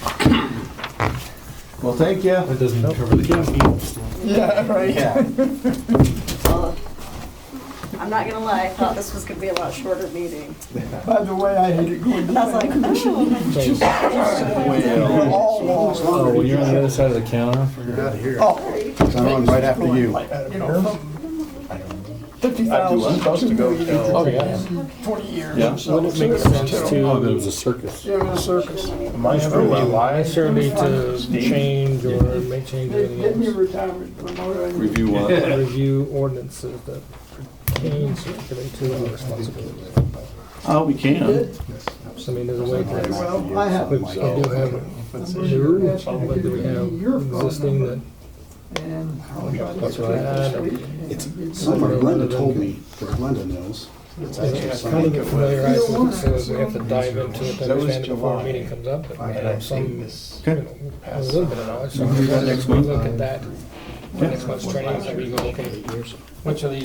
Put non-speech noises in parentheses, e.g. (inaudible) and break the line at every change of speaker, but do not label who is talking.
Well, thank you.
That doesn't cover the cost.
Yeah, right. Yeah.
Uh, I'm not gonna lie, I thought this was gonna be a lot shorter meeting.
By the way, I hated going
I was like, oh,
We're all lost.
Oh, when you're on the other side of the counter?
I'm on right after you.
You know, fifty thousand, two
Oh,
million,
yeah.
twenty years.
Yeah.
Wouldn't
make sense to-
Oh, there was a circus.
It was a circus.
My survey,
Why?
my survey to change or make change
Give give me
anything
retirement promoter.
(laughs)
Review what?
else. Review ordinances that pertain strictly to our responsibility.
Oh, we can.
So I mean, there's a way to,
Well, I have.
we do have new, but do we have existing that,
And
that's what I had.
It's somewhere Glenda told me, that Glenda knows. It's actually
Kind of
something.
get familiarized with it, so that we have to dive into it, to understand it before a meeting comes up, and have some, you know, a little bit of knowledge. So
that next
we
month.
look at that, next month's training, so we go, okay, which of these